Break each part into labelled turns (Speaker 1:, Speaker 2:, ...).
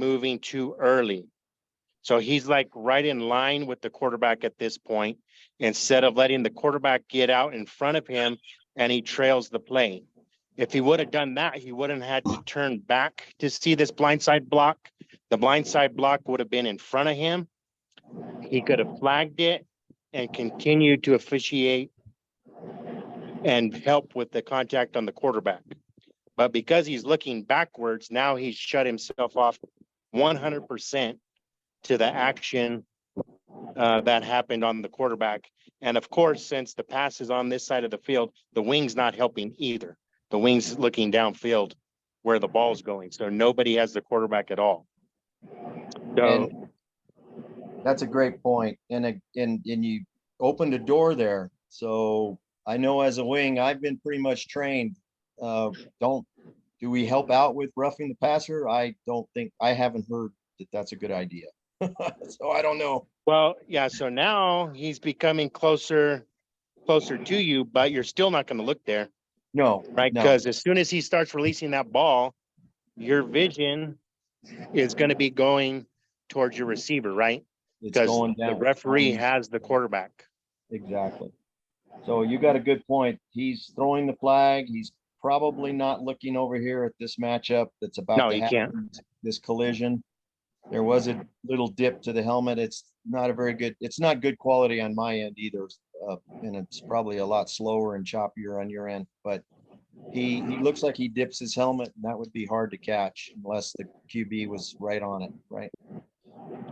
Speaker 1: moving too early. So he's like right in line with the quarterback at this point, instead of letting the quarterback get out in front of him and he trails the play. If he would have done that, he wouldn't had to turn back to see this blindside block. The blindside block would have been in front of him. He could have flagged it and continued to officiate and help with the contact on the quarterback. But because he's looking backwards, now he's shut himself off one hundred percent to the action uh, that happened on the quarterback. And of course, since the pass is on this side of the field, the wing's not helping either. The wing's looking downfield where the ball's going, so nobody has the quarterback at all. So,
Speaker 2: And that's a great point. And, a- and, and you opened a door there. So I know as a wing, I've been pretty much trained. Uh, don't, do we help out with roughing the passer? I don't think, I haven't heard that that's a good idea. So I don't know.
Speaker 1: well, yeah, so now he's becoming closer, closer to you, but you're still not gonna look there.
Speaker 2: No.
Speaker 1: right?
Speaker 2: no.
Speaker 1: Because as soon as he starts releasing that ball, your vision is going to be going towards your receiver, right?
Speaker 2: It's
Speaker 1: Because
Speaker 2: going
Speaker 1: the
Speaker 2: down.
Speaker 1: referee has the quarterback.
Speaker 2: Exactly. So you got a good point. He's throwing the flag. He's probably not looking over here at this matchup that's about.
Speaker 1: No,
Speaker 2: to
Speaker 1: he
Speaker 2: happen,
Speaker 1: can't.
Speaker 2: This collision. There was a little dip to the helmet. It's not a very good, it's not good quality on my end either. uh, And it's probably a lot slower and choppier on your end, but he, he looks like he dips his helmet and that would be hard to catch unless the QB was right on it, right?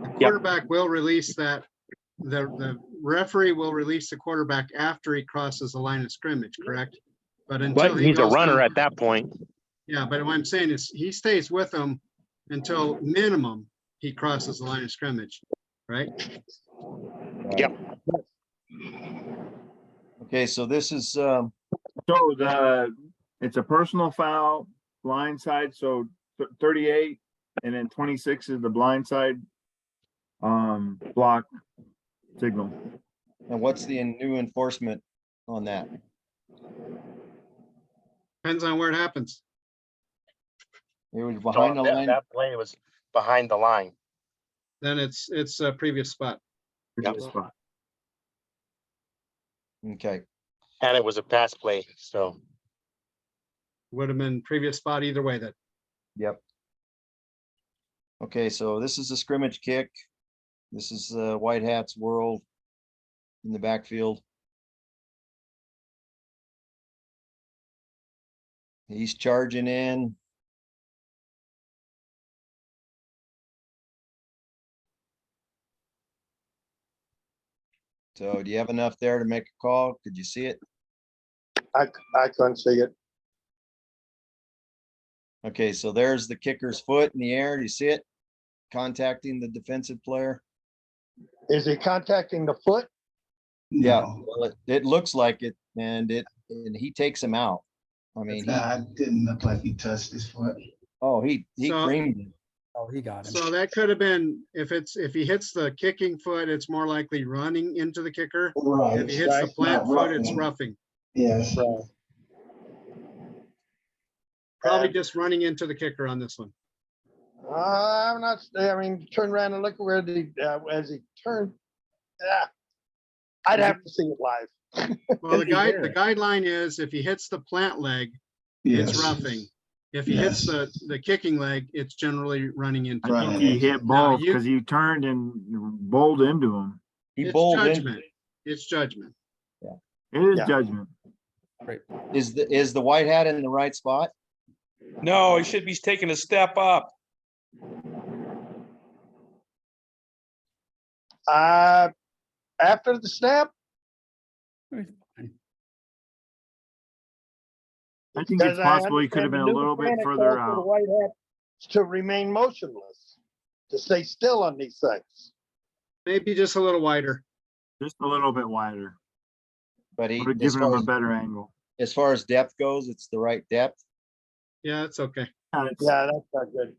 Speaker 3: The quarterback will release that, the, the referee will release the quarterback after he crosses the line of scrimmage, correct? But until.
Speaker 1: But
Speaker 3: he
Speaker 1: he's a
Speaker 3: goes down-
Speaker 1: runner at that point.
Speaker 3: Yeah, but what I'm saying is he stays with them until minimum he crosses the line of scrimmage, right?
Speaker 2: Okay, so this is, um,
Speaker 4: So the, it's a personal foul, blind side, so th- thirty-eight, and then twenty-six is the blind side. Um, block signal.
Speaker 2: and what's the new enforcement on that?
Speaker 3: Depends on where it happens.
Speaker 2: It was behind the
Speaker 1: That-
Speaker 2: line.
Speaker 1: That play was behind the line.
Speaker 3: Then it's, it's a previous spot.
Speaker 1: Yep.
Speaker 4: Previous spot.
Speaker 2: Okay,
Speaker 1: And it was a pass play, so.
Speaker 3: Would have been previous spot either way then.
Speaker 2: yep. Okay, so this is a scrimmage kick. This is uh, White Hats World in the backfield. He's charging in. So do you have enough there to make a call? Could you see it?
Speaker 5: I, c- I couldn't see it.
Speaker 2: Okay, so there's the kicker's foot in the air. Do you see it? Contacting the defensive player.
Speaker 5: Is he contacting the foot?
Speaker 2: Yeah, well, it, it looks like it and it, and he takes him out. I mean, he-
Speaker 6: Nah, it didn't look like he touched his foot.
Speaker 2: oh, he, he
Speaker 3: So-
Speaker 2: creamed him.
Speaker 7: Oh, he got him.
Speaker 3: So that could have been, if it's, if he hits the kicking foot, it's more likely running into the kicker.
Speaker 6: Right.
Speaker 3: If he hits the
Speaker 6: right,
Speaker 3: flat
Speaker 6: not
Speaker 3: foot, it's roughing.
Speaker 6: roughing. Yes,
Speaker 3: Probably just running into the kicker on this one.
Speaker 5: Uh, I'm not, I mean, turn around and look where the, uh, as he turned. Yeah. I'd have to see it live.
Speaker 3: Well, the
Speaker 4: If he
Speaker 3: guide,
Speaker 4: hit
Speaker 3: the
Speaker 4: it.
Speaker 3: guideline is if he hits the plant leg,
Speaker 6: yes.
Speaker 3: it's roughing. If he hits the, the kicking leg, it's generally running into.
Speaker 6: Right.
Speaker 3: it.
Speaker 4: He hit
Speaker 3: Now,
Speaker 4: both
Speaker 3: you-
Speaker 4: because he turned and bowled into him.
Speaker 2: He
Speaker 3: It's
Speaker 2: bowled in.
Speaker 3: judgment. It's judgment.
Speaker 4: It is
Speaker 5: Yeah.
Speaker 4: judgment.
Speaker 2: Is the, is the white hat in the right spot?
Speaker 8: No, he should be taking a step up.
Speaker 5: Uh, after the snap,
Speaker 4: I think it's
Speaker 5: Because I
Speaker 4: possible he could have
Speaker 5: understand
Speaker 4: been
Speaker 5: the
Speaker 4: a
Speaker 5: new
Speaker 4: little bit
Speaker 5: mechanic calls
Speaker 4: further
Speaker 5: for the
Speaker 4: out.
Speaker 5: White Hats To remain motionless, to stay still on these things.
Speaker 3: Maybe just a little wider.
Speaker 4: Just a little bit wider.
Speaker 2: But he,
Speaker 4: Would have
Speaker 2: as
Speaker 4: given him
Speaker 2: far
Speaker 4: a
Speaker 2: as,
Speaker 4: better angle.
Speaker 2: as far as depth goes, it's the right depth.
Speaker 3: Yeah, it's okay.
Speaker 4: Yeah, it's
Speaker 5: Yeah, that's not good.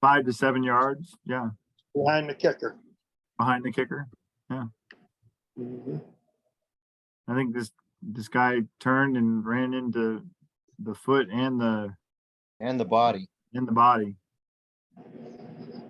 Speaker 4: Five to seven yards, yeah,
Speaker 5: Behind the kicker.
Speaker 4: behind the kicker.
Speaker 5: Mhm.
Speaker 4: I think this, this guy turned and ran into the foot and the,
Speaker 2: And the body.
Speaker 4: and the body.